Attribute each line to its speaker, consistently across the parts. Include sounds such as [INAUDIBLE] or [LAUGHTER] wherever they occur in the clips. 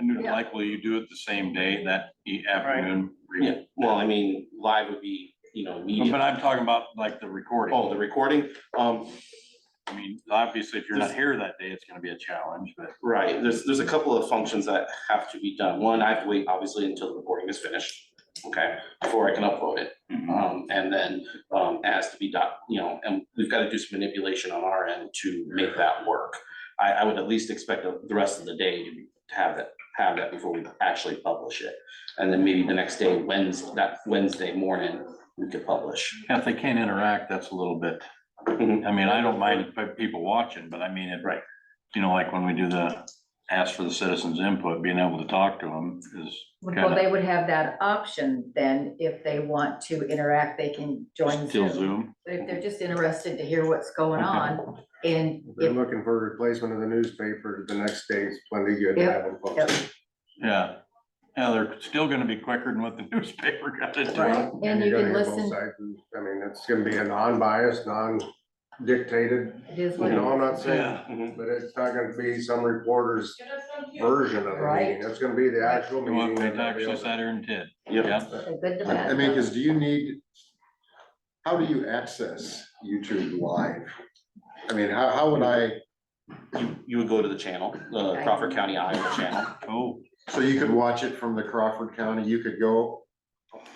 Speaker 1: Yeah.
Speaker 2: like, will you do it the same day, that e- afternoon?
Speaker 3: Yeah, well, I mean, live would be, you know,
Speaker 2: But
Speaker 3: immediate.
Speaker 2: but I'm talking about like the
Speaker 3: Oh,
Speaker 2: recording.
Speaker 3: the recording, um,
Speaker 2: I mean, obviously, if you're not here that day, it's gonna be a challenge, but
Speaker 3: right, there's, there's a couple of functions that have to be done. One, I have to wait obviously until the recording is finished, okay, before I can upload it.
Speaker 2: uh,
Speaker 3: Um, and then, um, has to be done, you know, and we've got to do some manipulation on our end to make that work. I, I would at least expect the the rest of the day to be- to have that, have that before we actually publish it. And then maybe the next day, Wednesday, that Wednesday morning, we could publish.
Speaker 2: if they can't interact, that's a little bit,
Speaker 3: Mhm.
Speaker 2: I mean, I don't mind pe- people watching, but I mean, it.
Speaker 3: Right.
Speaker 2: You know, like when we do the ask for the citizens input, being able to talk to them is
Speaker 1: Well,
Speaker 2: kind
Speaker 1: they would have that option then, if they want to interact, they can join
Speaker 2: of still
Speaker 1: Zoom.
Speaker 2: Zoom.
Speaker 1: But if they're just interested to hear what's going
Speaker 2: Okay.
Speaker 1: on, and
Speaker 4: They're
Speaker 1: if,
Speaker 4: looking for a replacement of the newspaper, the next day is plenty good to
Speaker 1: Yep,
Speaker 4: have it
Speaker 1: yep.
Speaker 4: posted.
Speaker 2: Yeah, yeah, they're still gonna be quicker than what the [LAUGHS] newspaper got to do.
Speaker 1: Right, and you
Speaker 4: you're
Speaker 1: can
Speaker 4: gonna hear both
Speaker 1: listen,
Speaker 4: sides, and, I mean, it's gonna be a non-biased, non-dictated,
Speaker 1: it is
Speaker 4: you
Speaker 1: what it
Speaker 4: know, I'm
Speaker 1: is.
Speaker 4: not saying,
Speaker 2: Yeah.
Speaker 3: Mhm.
Speaker 4: but it's not gonna be some reporter's version of the
Speaker 1: Right.
Speaker 4: meeting, it's gonna be the actual
Speaker 2: You want
Speaker 4: meeting.
Speaker 2: me
Speaker 4: and
Speaker 2: to actually
Speaker 4: everything.
Speaker 2: sat here and did,
Speaker 3: Yep.
Speaker 2: yeah.
Speaker 1: A good
Speaker 5: I
Speaker 1: debate.
Speaker 5: mean, because do you need, how do you access YouTube Live? I mean, how, how would I,
Speaker 3: You, you would go to the channel, the Crawford County Iowa channel.
Speaker 2: Oh,
Speaker 5: so you could watch it from the Crawford County, you could go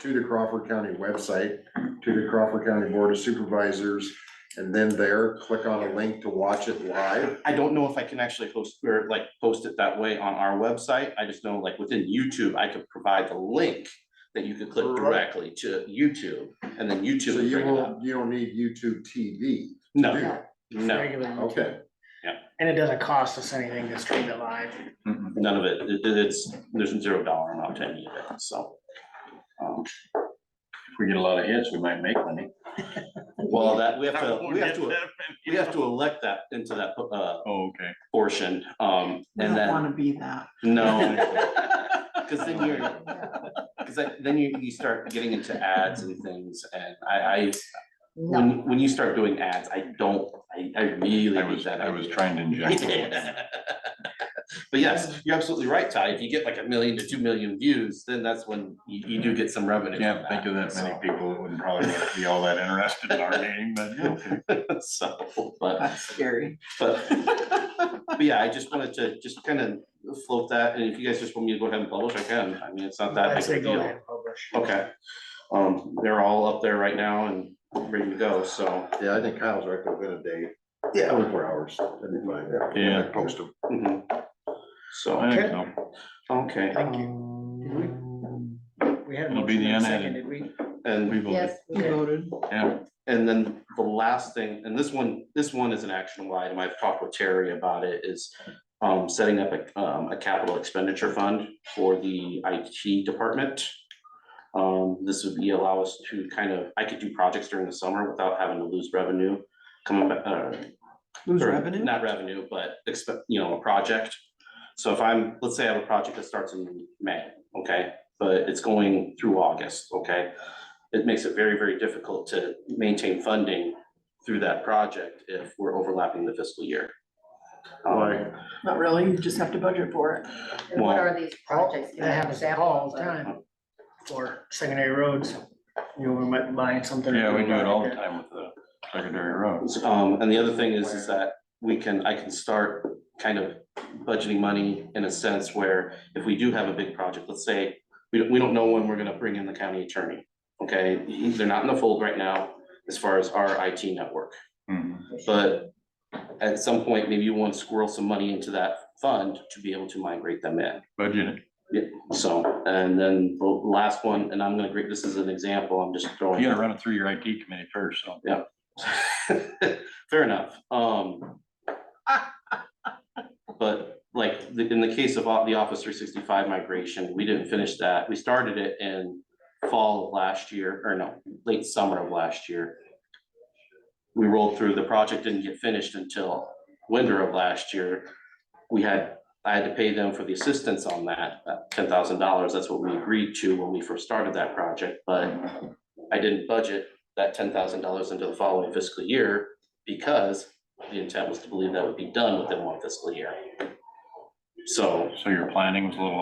Speaker 5: to the Crawford County website, to the Crawford County Board of Supervisors, and then there, click on a link to watch it live.
Speaker 3: [LAUGHS] I don't know if I can actually host or like post it that way on our website. I just know like within YouTube, I could provide the link that you could click
Speaker 5: Right.
Speaker 3: directly to YouTube and then YouTube
Speaker 5: So
Speaker 3: would
Speaker 5: you
Speaker 3: bring it up.
Speaker 5: won't, you don't need YouTube TV. to
Speaker 3: No,
Speaker 5: do
Speaker 1: No.
Speaker 5: it.
Speaker 3: no,
Speaker 6: Regular,
Speaker 5: Okay,
Speaker 6: and it doesn't cost us anything to stream it live.
Speaker 2: mm-mm.
Speaker 3: none of it. It- It's, there's zero dollar amount to any of it, so. um,
Speaker 2: if we get a lot of hits, we might make money.
Speaker 3: Well, that, we have
Speaker 2: I
Speaker 3: to,
Speaker 2: won't
Speaker 3: we have
Speaker 2: get
Speaker 3: to,
Speaker 2: that many.
Speaker 3: we have to elect that into that uh
Speaker 2: Oh, okay.
Speaker 3: portion, um,
Speaker 7: We
Speaker 3: and
Speaker 7: don't
Speaker 3: then,
Speaker 7: wanna be that. [LAUGHS]
Speaker 3: no. Cause then you're,
Speaker 1: Yeah.
Speaker 3: Cause that- then you, you start getting into ads and things, and I, I,
Speaker 1: No,
Speaker 3: when, when you start doing ads, I don't, I, I really
Speaker 2: I
Speaker 3: hate
Speaker 2: was,
Speaker 3: that.
Speaker 2: I was
Speaker 3: idea.
Speaker 2: trying to
Speaker 3: [LAUGHS]
Speaker 2: inject.
Speaker 3: But yes, you're absolutely right, Ty, if you get like a million to two million views, then that's when you, you do get some
Speaker 2: I
Speaker 3: revenue.
Speaker 2: Can't
Speaker 3: from
Speaker 2: think of that many
Speaker 3: so-
Speaker 2: people that would probably be all that interested in our
Speaker 3: [LAUGHS]
Speaker 2: meeting, but yeah, okay.
Speaker 3: So, but,
Speaker 7: That's scary.
Speaker 6: [LAUGHS]
Speaker 3: but, but yeah, I just wanted to just kind of float that, and if you guys just want me to go ahead and publish, I can, I mean, it's not that
Speaker 6: I
Speaker 3: big of
Speaker 6: say
Speaker 3: a
Speaker 6: go
Speaker 3: deal.
Speaker 6: ahead and publish.
Speaker 3: Okay, um, they're all up there right now and ready to go, so.
Speaker 5: yeah, I think Kyle's right, within a day, twenty-four hours, that'd be fine.
Speaker 2: Yeah.
Speaker 5: Post them.
Speaker 3: mhm.
Speaker 2: I
Speaker 3: So,
Speaker 2: think so.
Speaker 3: okay, Mm-hmm.
Speaker 6: Thank you. We had a
Speaker 2: It'll be
Speaker 6: motion
Speaker 2: the
Speaker 6: and a
Speaker 2: unedited.
Speaker 6: second, did we?
Speaker 3: and,
Speaker 2: We voted.
Speaker 1: yes, we did.
Speaker 2: Yeah,
Speaker 3: and then the last thing, and this one, this one is an actionable item, I've talked with Terry about it, is um, setting up a, um, a capital expenditure fund for the IT department. Um, this would be allow us to kind of, I could do projects during the summer without having to lose revenue coming back, uh,
Speaker 7: Lose
Speaker 3: or
Speaker 7: revenue?
Speaker 3: Not revenue, but expect, you know, a project. So if I'm, let's say I have a project that starts in May, okay, but it's going through August, okay? It makes it very, very difficult to maintain funding through that project if we're overlapping the fiscal year. Um,
Speaker 4: Right.
Speaker 7: Not really, you just have to budget for it.
Speaker 1: And what
Speaker 3: Well,
Speaker 1: are these projects?
Speaker 6: That happens all the time for secondary roads. You know, we might be buying something.
Speaker 2: yeah, we do it all the time with the secondary roads.
Speaker 3: Um, and the other thing is, is that we can, I can start kind of budgeting money in a sense where if we do have a big project, let's say, we don't, we don't know when we're gonna bring in the county attorney, okay? They're not in the fold right now as far as our IT network,
Speaker 2: Mhm.
Speaker 3: but at some point, maybe you want to squirrel some money into that fund to be able to migrate them in.
Speaker 2: Budget it.
Speaker 3: So, and then the last one, and I'm gonna, gra- this is an example, I'm just throwing.
Speaker 2: You gotta run it through your IT committee first, so.
Speaker 3: [LAUGHS] Fair enough, um. But like, the- in the case of o- the Office three sixty-five migration, we didn't finish that, we started it in fall of last year, or no, late summer of last year. We rolled through, the project didn't get finished until winter of last year. We had, I had to pay them for the assistance on that, ten thousand dollars, that's what we agreed to when we first started that project, but I didn't budget that ten thousand dollars into the following fiscal year because the intent was to believe that would be done within one fiscal year. So
Speaker 2: So your planning was a little